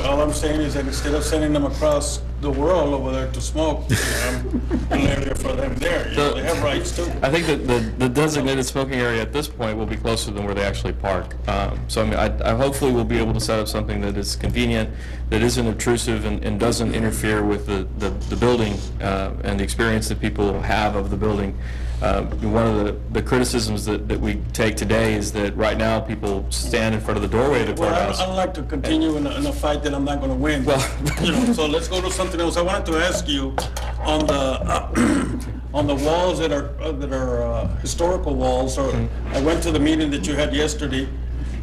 all I'm saying is that instead of sending them across the world over there to smoke, you know, I'm an area for them there, you know, they have rights too. I think that the the designated smoking area at this point will be closer than where they actually park. Um, So I mean, I I hopefully we will be able to set up something that is convenient, that isn't obtrusive and and doesn't interfere with the the the building uh, and the experience that people have of the building. Uh, One of the the criticisms that that we take today is that right now people stand in front of the doorway of the Well, courthouse. I- I'd like to continue in a, in a fight that I'm not gonna win. Well- You know, so let's go to something else. I wanted to ask you, on the, uh, on the walls that are, uh, that are uh, historical walls, or, Mm-hmm. I went to the meeting that you had yesterday,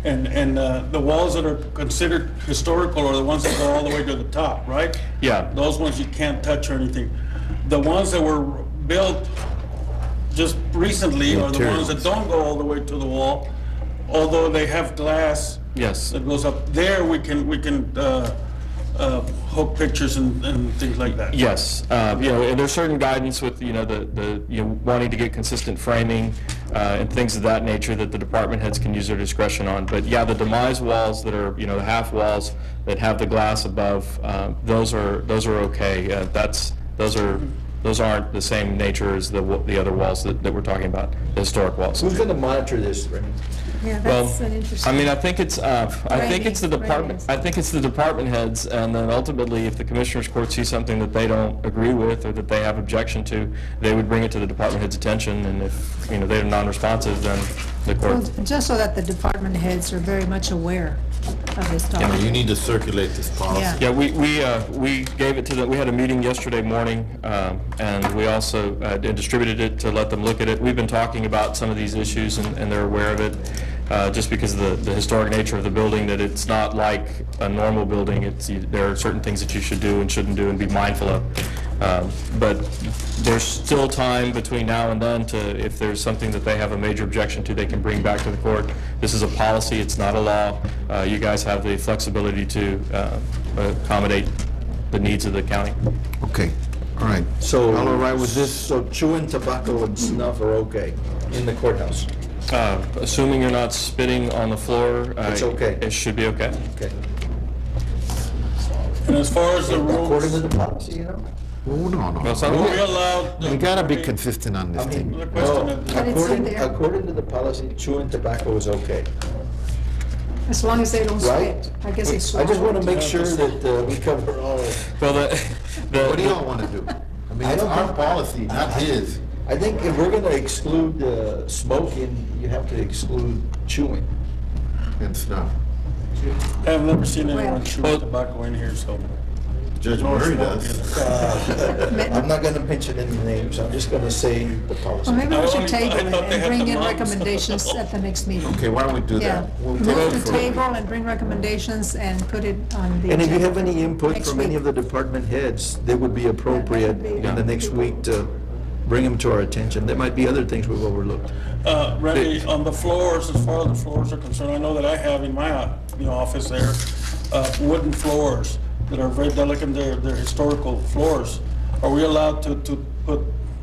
and, and uh, the walls that are considered historical are the ones that go all the way to the top, right? Yeah. Those ones you can't touch or anything. The ones that were built just recently are the ones that don't go all the way to the wall, although they have glass Yes. that goes up there, we can, we can uh, uh, hook pictures and, and things like that. Yes, uh, you know, and there's certain guidance with, you know, the, the, you know, wanting to get consistent framing uh, and things of that nature that the department heads can use their discretion on. But yeah, the demise walls that are, you know, the half walls that have the glass above, uh, those are, those are okay. Uh, That's, those are, those aren't the same nature as the, wa- the other walls that, that we're talking about, the historic walls. Who's going to monitor this, Raymond? Yeah, Well, that's an interesting. I mean, I think it's, uh, I think it's the Writing, department, I writers. think it's the department heads, and then ultimately, if the commissioners court sees something that they don't agree with or that they have objection to, they would bring it to the department head's attention, and if, you know, they're non-responsive, then the Well, court. Just so that the department heads are very much aware of this I mean, you topic. need to circulate this policy. Yeah, we, we, uh, we gave it to them, we had a meeting yesterday morning, um, and we also uh, and distributed it to let them look at it. We've been talking about some of these issues, and and they're aware of it, uh, just because of the the historic nature of the building, that it's not like a normal building. It's, you- there are certain things that you should do and shouldn't do and be mindful of. Um, But there's still time between now and then to, if there's something that they have a major objection to, they can bring back to the court. This is a policy, it's not a law. Uh, You guys have the flexibility to uh, accommodate the needs of the county. Okay, all right. So. All right with this, So chewing tobacco and snuff are okay in the courthouse? Uh, Assuming you're not spitting on the floor. uh, It's okay. It should be okay. Okay. And as far as the According to rules, the policy, you know? hold on, Well, hold so- on. we allowed. We gotta be consistent on this I mean, thing. The no, question of- But it's in Oh, according, there. according to the policy, chewing tobacco is okay, As long as they don't right? spit, I guess they swallow. I just want to make it. sure that uh, we cover all, Well, the, What do y'all the, wanna do? I mean, I it's don't our think- policy, not his. I think if we're going to exclude uh, smoking, you have to exclude chewing. And stuff. Oh. I've never seen anyone Well- chew Well- tobacco in here, so. Judge nor Murray smoke Oh, does. either. I'm not going to mention any names, I'm just going to say the policy. Well, maybe I we only- should table I it thought they and had bring the in moms. recommendations at the next meeting. Okay, why don't we do Yeah, that? We'll vote move the for it. table and bring recommendations and put it on the. And if you agenda. have any input Next from any week. of the department heads, they would be appropriate be- in the next week to bring them to our attention. There might be other things we've overlooked. Uh, Randy, on the floors, as far as the floors are concerned, I know that I have in my, uh, you know, office there, uh, wooden floors that are very delicate, they're, they're historical floors. Are we allowed to, to put,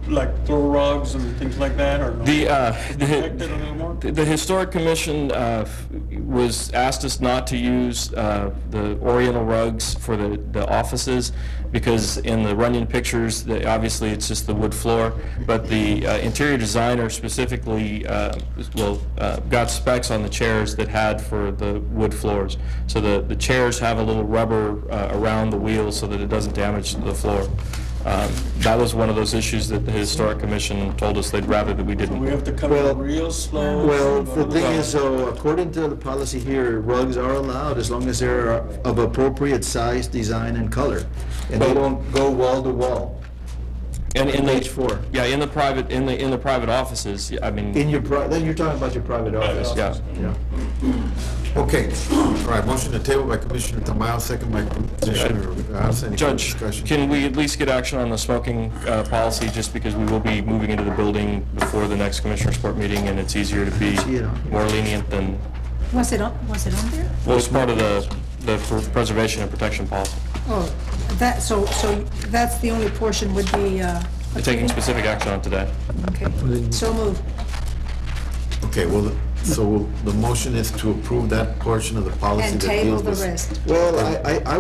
like, throw rugs and things like that, or no? the, uh, Protect it a little more? The the Historic Commission uh, f- was, asked us not to use uh, the oriental rugs for the the offices, because in the Runyon pictures, the- obviously, it's just the wood floor, but the uh, interior designer specifically, uh, well, uh, got specs on the chairs that had for the wood floors. So the the chairs have a little rubber uh, around the wheels so that it doesn't damage the floor. Um, That was one of those issues that the Historic Commission told us they'd rather that we didn't. We have to come Well- in real slow. Well, the thing is, though, according to the policy here, rugs are allowed as long as they're of appropriate size, design, and color. And they don't go wall to wall And in Page the, four. yeah, in the private, in the, in the private offices, I mean, in your, pri- then you're talking about your private office. yeah. Yeah. Okay, all right, motion to table by Commissioner Tamayo, second by Commissioner Garza. Any Judge, discussion? can we at least get action on the smoking uh, policy, just because we will be moving into the building before the next Commissioners Court meeting, and it's easier to be See it on here. more lenient than, Was it on, was it on there? well, it's part of the, the pr- preservation and protection policy, Oh, that, so, so that's the only portion would be, uh. We're taking specific action on today. Okay, so move. Okay, well, the- so the motion is to approve that portion of the policy And that table deals the with... rest. Well, I, I,